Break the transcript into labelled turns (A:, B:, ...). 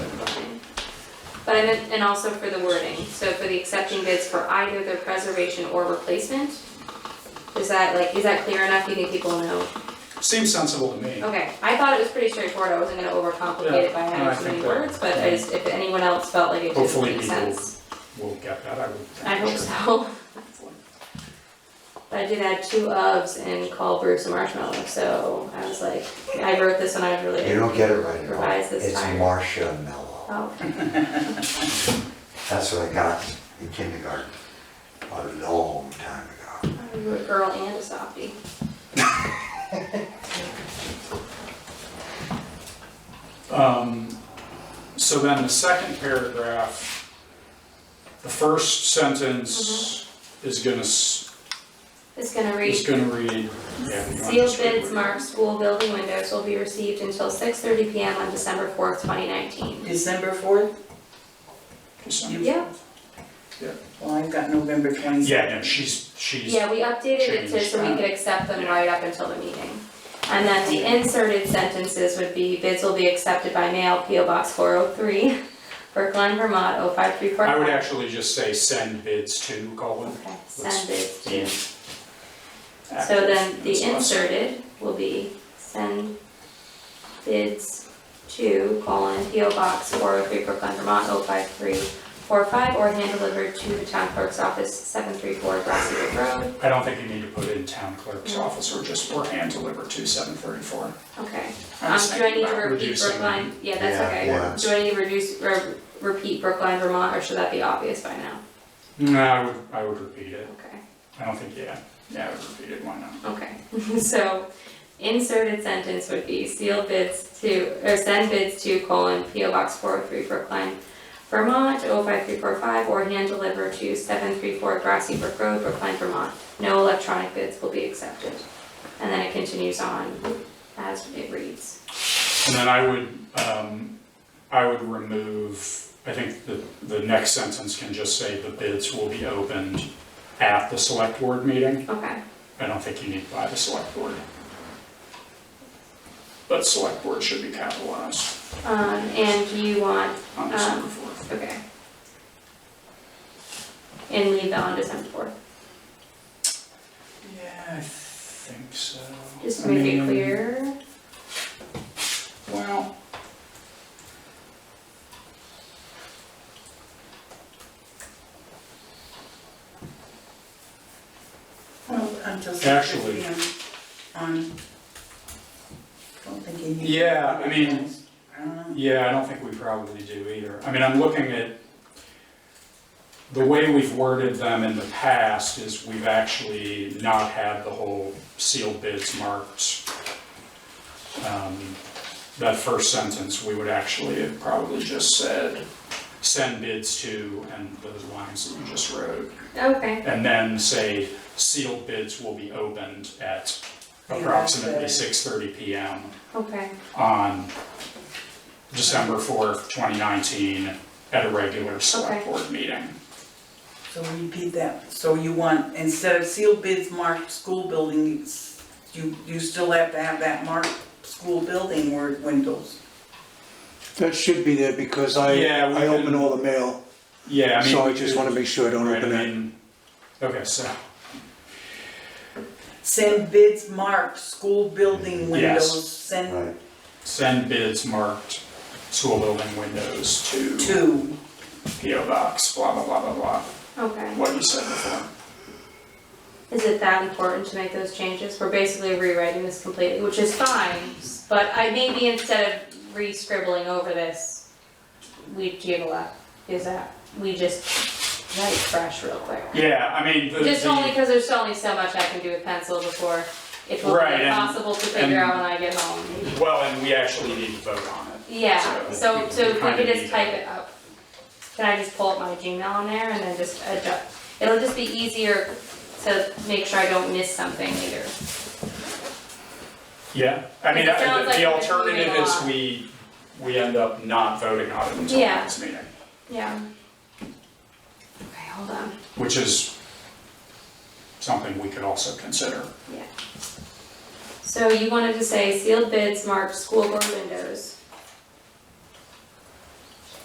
A: But I meant, and also for the wording, so for the accepting bids for either the preservation or replacement? Is that like, is that clear enough, you think people know?
B: Seems sensible to me.
A: Okay, I thought it was pretty straightforward, I wasn't gonna overcomplicate it by
B: Yeah, no, I
A: having too
B: think
A: many
B: that-
A: words, but I just, if anyone else felt like it didn't
B: Hopefully
A: make
B: people-
A: sense.
B: We'll get that, I would think.
A: I hope
B: sure.
A: so. But I did add two ofs and call Bruce a marshmallow, so I was like, I wrote this when I was really.
C: You don't get it right at all.
A: Revise this
C: It's
A: higher.
C: Marcia Mello.
A: Oh,
C: That's what I got in kindergarten, a long time ago.
A: I wrote girl and a softie.
B: Um, So then the second paragraph, the first sentence
A: Mm-hmm.
B: is gonna, s-
A: It's gonna read.
B: is gonna read. yeah, you want
A: Sealed
B: to read
A: bids
B: it?
A: marked school building windows will be received until six thirty P M on December fourth, twenty nineteen.
D: December fourth?
B: December.
A: Yep,
D: Well, I've got November twenty-second.
B: Yeah, no, she's, she's,
A: yeah, we updated it to, so we
B: Changed
A: could accept them right up until the meeting. And then the inserted sentences would be bids will be accepted by mail, P O box four oh three, Brookline, Vermont, oh five three four
B: I
A: five.
B: would actually just say send bids to Colin.
A: Okay, send bids
B: Yeah.
A: to. So then the inserted will be send bids to colon P O Box four oh three Brooklyn, Vermont, oh five three four five, or hand delivered to the town clerk's office, seven three four Grassy Brook Road.
B: I don't think you need to put in town clerk's
A: Mm.
B: office or just, or hand delivered to seven thirty-four.
A: Okay, um, do I need to repeat
B: reducing-
A: Brookline? Yeah, that's
C: Yeah,
A: okay.
C: yeah.
A: Do I need to reduce, re- repeat Brookline, Vermont, or should that be obvious by now?
B: No, I would, I would repeat it.
A: Okay.
B: I don't think, yeah, yeah, I would repeat it, why not?
A: Okay, so inserted sentence would be seal bids to, or send bids to colon P O Box four oh three Brookline, Vermont, oh five three four five, or hand deliver to seven three four Grassy Brook Road, Brookline, Vermont. No electronic bids will be accepted. And then it continues on as it reads.
B: And then I would, um, I would remove, I think the, the next sentence can just say the bids will be opened at the select board meeting.
A: Okay,
B: I don't think you need by the select board. But select board should be capitalized
A: um, and you want,
B: on December fourth.
A: okay. And leave that on December fourth,
B: Yeah, I think so.
A: just
B: I
A: to make it
B: mean,
A: clear.
B: Well.
D: Well, Oh, until six
B: Actually-
D: thirty on, on. Don't think you need.
B: Yeah, I mean-
D: I don't know.
B: Yeah, I don't think we probably do either. I mean, I'm looking at, the way we've worded them in the past is we've actually not had the whole sealed bids marked. Um, That first sentence, we would actually have probably just said, send bids to, and those lines that you just wrote.
A: Okay,
B: And then say, sealed bids will be opened at approximately
D: Yeah, that's
B: six thirty PM
A: okay.
B: on December fourth, twenty nineteen, at a regular select
A: Okay.
B: board meeting.
D: So repeat that. So you want, instead of sealed bids marked school buildings, you, you still have to have that marked school building word windows.
E: That should be there because I,
B: Yeah, we
E: I open
B: can-
E: all the mail,
B: Yeah, I mean.
E: so I just wanna make sure I don't
B: Right, I
E: open it.
B: mean, okay, so,
D: Send bids marked school building
B: Yes.
D: windows, send
C: Right.
B: send bids marked school building windows to
D: to.
B: PO Box, blah, blah, blah, blah, blah,
A: Okay,
B: what you said before.
A: is it that important to make those changes? We're basically rewriting this completely, which is fine, but I maybe instead of re-scribbling over this, we jiggle up, is that, we just write fresh real quick.
B: Yeah, I mean, the,
A: Just only
B: the,
A: because there's only so much I can do with pencil before it will
B: Right,
A: be
B: and-
A: possible to figure out
B: and-
A: when I get home.
B: well, and we actually need to vote on it.
A: Yeah, so, so if we
B: kinda
A: could
B: need
A: just
B: to-
A: type it up. Can I just pull up my Gmail on there and then just adjust? It'll just be easier to make sure I don't miss something later.
B: Yeah, I mean,
A: It
B: I-
A: sounds
B: the
A: like
B: the
A: we're just
B: alternative
A: moving
B: is
A: on.
B: we, we end up not voting on it until the
A: Yeah.
B: next meeting.
A: Yeah. Okay, hold on.
B: which is something we could also consider.
A: So you wanted to say sealed bids marked school board windows